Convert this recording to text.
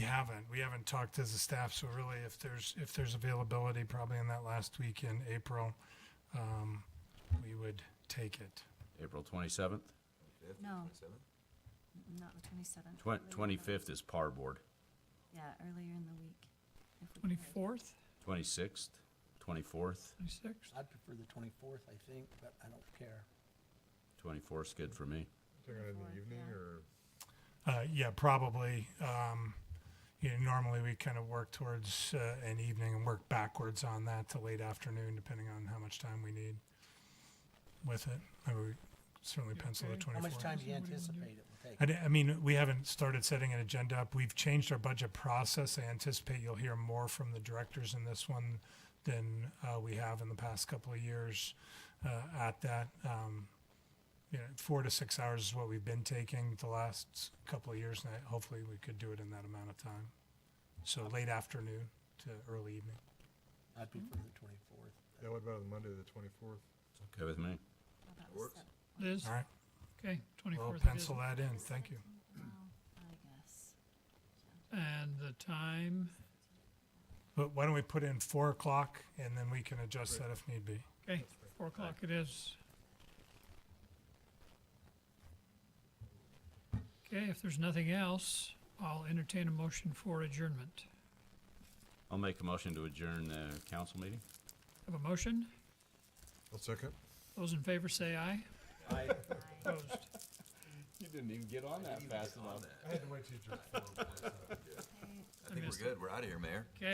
haven't. We haven't talked as a staff, so really if there's, if there's availability, probably in that last week in April, um, we would take it. April 27th? No. Not the twenty-seventh. Twen- 25th is par board. Yeah, earlier in the week. if we can. Twenty-fourth, 26th, 24th, twenty-sixth? I'd prefer the twenty-fourth, I think, but I don't care. 24th is good for me. They're gonna in Fourth, the evening yeah. or? Uh, yeah, probably. Um, you know, normally we kind of work towards, uh, an evening and work backwards on that to late afternoon, depending on how much time we need with it. I would certainly pencil the How twenty-four. much time do you anticipate it will I, take? di- I mean, we haven't started setting an agenda up. We've changed our budget process. I anticipate you'll hear more from the directors in this one than uh, we have in the past couple of years uh, at that. Um, you know, four to six hours is what we've been taking the last couple of years, and I- hopefully we could do it in that amount of time. So late afternoon to early evening. I'd prefer the twenty-fourth. Yeah, what about Monday, the twenty-fourth? It's okay with me. How about the Works. sev- It is, All right, okay, we'll twenty-fourth it is. pencil that in. Thank you. Well, I guess. And the time, But why don't we put in four o'clock, and then we can adjust that if need be. okay, four o'clock it is. Okay, if there's nothing else, I'll entertain a motion for adjournment. I'll make a motion to adjourn the council meeting. Have a motion? I'll second. Those in favor say aye. I, Opposed? You didn't even get on that fast enough. I had to wait till you. Okay. I think we're good. We're out of here, Mayor.